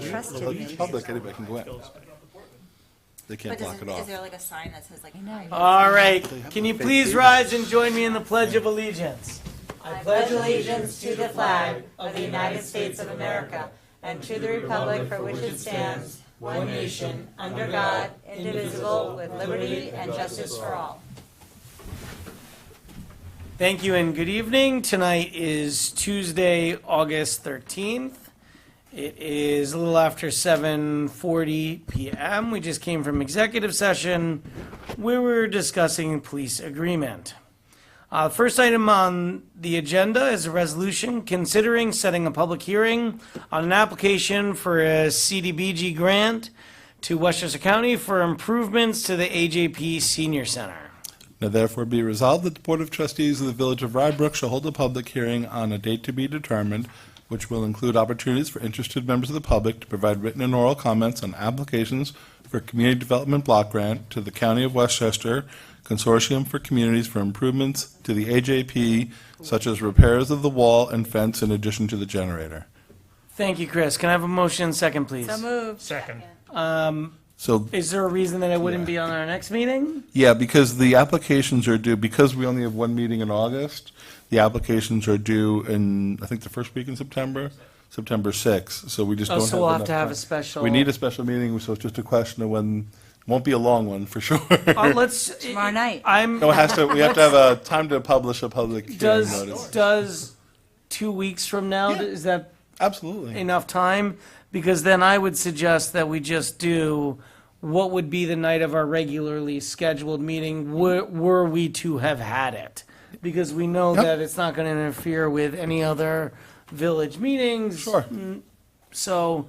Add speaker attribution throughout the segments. Speaker 1: Trust
Speaker 2: Well,
Speaker 1: him.
Speaker 2: it's public, anybody can go in. They can't
Speaker 1: But
Speaker 2: block
Speaker 1: does, it-
Speaker 2: it
Speaker 1: is
Speaker 2: off.
Speaker 1: there like a sign that says like? I
Speaker 3: All right,
Speaker 2: They have
Speaker 3: can
Speaker 2: a
Speaker 3: you
Speaker 2: fake
Speaker 3: please
Speaker 2: beard.
Speaker 3: rise and join me in the Pledge of Allegiance?
Speaker 4: I pledge allegiance to the flag of the United States of America and to the republic for which it stands, one nation, under God, indivisible, with liberty and justice for all.
Speaker 3: Thank you and good evening. Tonight is Tuesday, August 13th. It is a little after 7:40 PM. We just came from executive session where we were discussing police agreement. Uh, First item on the agenda is a resolution considering setting a public hearing on an application for a CDBG grant to Westchester County for improvements to the AJP Senior Center.
Speaker 2: Now therefore be resolved that the Board of Trustees of the Village of Rybrook shall hold a public hearing on a date to be determined, which will include opportunities for interested members of the public to provide written and oral comments on applications for Community Development Block Grant to the County of Westchester Consortium for Communities for Improvements to the AJP, such as repairs of the wall and fence in addition to the generator.
Speaker 3: Thank you, Chris. Can I have a motion and second, please?
Speaker 4: moved.
Speaker 5: Second.
Speaker 2: So
Speaker 3: Is there a reason that it wouldn't be on our next meeting?
Speaker 2: Yeah, because the applications are due, because we only have one meeting in August, the applications are due in, I think, the first week in September, September 6th, so we just
Speaker 3: Oh,
Speaker 2: don't have
Speaker 3: so we'll have
Speaker 2: enough
Speaker 3: to have
Speaker 2: time.
Speaker 3: a special.
Speaker 2: We need a special meeting, so it's just a question of when, won't be a long one, for sure.
Speaker 3: Uh, let's.
Speaker 4: Tomorrow night.
Speaker 3: I'm,
Speaker 2: No, it has to, we have to have a time to publish a public hearing
Speaker 3: does,
Speaker 2: notice.
Speaker 3: does two weeks from now,
Speaker 2: Yeah.
Speaker 3: is that
Speaker 2: Absolutely.
Speaker 3: enough time? Because then I would suggest that we just do what would be the night of our regularly scheduled meeting, were, were we to have had it. Because we know
Speaker 2: Yep.
Speaker 3: that it's not gonna interfere with any other village meetings. Mm,
Speaker 2: Sure.
Speaker 3: So,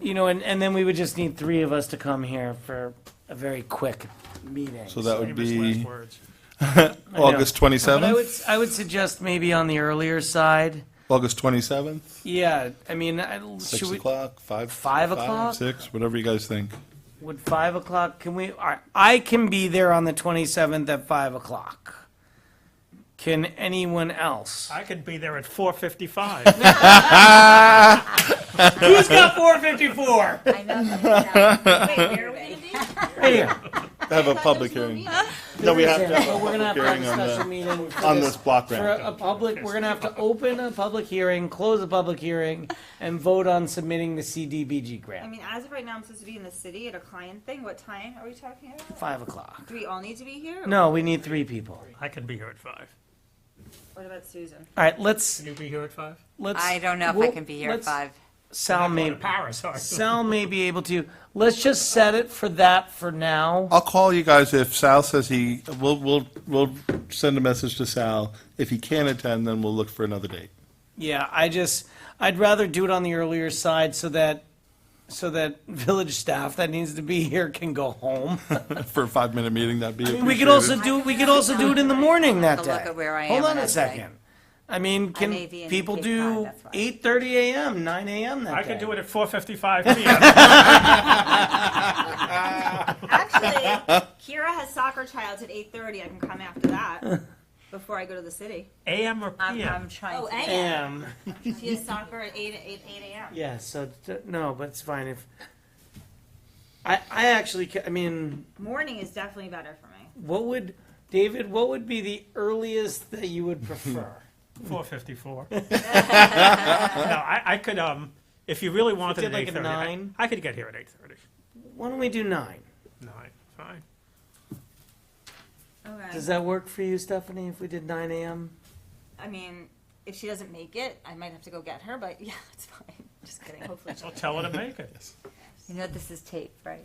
Speaker 3: you know, and, and then we would just need three of us to come here for a very quick meeting.
Speaker 2: So that would
Speaker 5: Famous last
Speaker 2: be
Speaker 5: words.
Speaker 2: August
Speaker 3: But I would,
Speaker 2: 27th?
Speaker 3: I would suggest maybe on the earlier side.
Speaker 2: August 27th,
Speaker 3: Yeah, I mean, I,
Speaker 2: 6
Speaker 3: should we,
Speaker 2: o'clock, 5?
Speaker 3: Five o'clock?
Speaker 2: 6, whatever you guys think.
Speaker 3: would five o'clock, can we, I, I can be there on the twenty-seventh at five o'clock. Can anyone else?
Speaker 5: I could be there at four fifty-five.
Speaker 3: Who's got four fifty-four? Hey, here.
Speaker 2: Have a public hearing. No, we have to
Speaker 3: But we're
Speaker 2: have
Speaker 3: gonna
Speaker 2: a
Speaker 3: have to have
Speaker 2: hearing
Speaker 3: a
Speaker 2: on the.
Speaker 3: special meeting. for
Speaker 2: on this block
Speaker 3: For
Speaker 2: grant.
Speaker 3: a public, we're gonna have to open a public hearing, close a public hearing, and vote on submitting the CDBG
Speaker 6: I
Speaker 3: grant,
Speaker 6: mean, as of right now, I'm supposed to be in the city at a client thing. What time are we talking about?
Speaker 3: five o'clock.
Speaker 6: Do we all need to be here?
Speaker 3: No, we need three people.
Speaker 5: I could be here at five.
Speaker 6: What about Susan?
Speaker 3: All right, let's,
Speaker 5: Can you be here at five?
Speaker 3: let's.
Speaker 4: don't know
Speaker 3: we'll- let's- Sal
Speaker 5: I'm going
Speaker 3: may,
Speaker 5: to Paris, sorry.
Speaker 3: Sal may be able to, let's just set it for that for now.
Speaker 2: I'll call you guys if Sal says he, we'll, we'll, we'll send a message to Sal. If he can't attend, then we'll look for another date.
Speaker 3: Yeah, I just, I'd rather do it on the earlier side so that, so that village staff that needs to be here can go home.
Speaker 2: For a five-minute meeting, that'd be
Speaker 3: We could also
Speaker 2: appreciated.
Speaker 3: do, we could also do it in the morning that
Speaker 4: Have
Speaker 3: day.
Speaker 4: a look at where I
Speaker 3: Hold
Speaker 4: am
Speaker 3: on a
Speaker 4: that day.
Speaker 3: second. I mean, can
Speaker 4: may be in
Speaker 3: people
Speaker 4: Cape
Speaker 3: do
Speaker 4: Cod, that's why.
Speaker 3: eight thirty AM, nine AM that
Speaker 5: I
Speaker 3: day?
Speaker 5: could do it at four fifty-five PM.
Speaker 6: Actually, Kira has soccer tryouts at 8:30. I can come after that before I go to the city.
Speaker 5: AM or
Speaker 4: I'm,
Speaker 5: PM?
Speaker 4: I'm trying
Speaker 6: Oh,
Speaker 4: to.
Speaker 6: and
Speaker 3: AM,
Speaker 6: she has soccer at 8 8, 8 a.m.
Speaker 3: yeah, so, d- no, but it's fine if, I, I actually, ca- I mean,
Speaker 6: Morning is definitely better for me.
Speaker 3: what would, David, what would be the earliest that you would prefer?
Speaker 5: Four fifty-four. No, I, I could, um, if you really wanted
Speaker 3: did
Speaker 5: at
Speaker 3: like
Speaker 5: eight
Speaker 3: a
Speaker 5: thirty, I
Speaker 3: nine?
Speaker 5: I could get here at eight thirty.
Speaker 3: Why don't we do nine?
Speaker 5: Nine, fine.
Speaker 6: Okay.
Speaker 3: Does that work for you, Stephanie, if we did nine AM?
Speaker 6: I mean, if she doesn't make it, I might have to go get her. But yeah, it's fine. Just kidding. Hopefully, she'll.
Speaker 5: I'll tell her to make it.
Speaker 4: You know this is tape, right?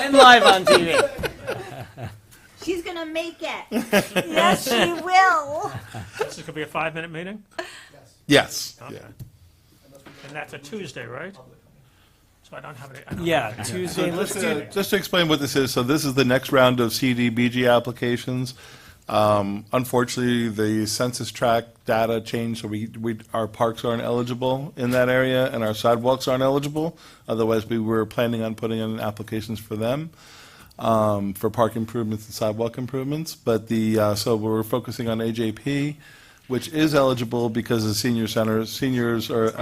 Speaker 3: And live on TV.
Speaker 6: She's gonna make it. yes, she will.
Speaker 5: This is gonna be a five-minute meeting,
Speaker 2: Yes, yeah.
Speaker 5: and that's a Tuesday, right? So I don't have any, I don't
Speaker 3: Yeah, Tuesday, let's
Speaker 2: Just
Speaker 3: do,
Speaker 2: to- Just to explain what this is, so this is the next round of CDBG applications. Um, Unfortunately, the census tract data changed, so we, we, our parks aren't eligible in that area, and our sidewalks aren't eligible. Otherwise, we were planning on putting in applications for them, um, for park improvements and sidewalk improvements. But the, uh, so we're focusing on AJP. which is eligible because the senior centers, seniors are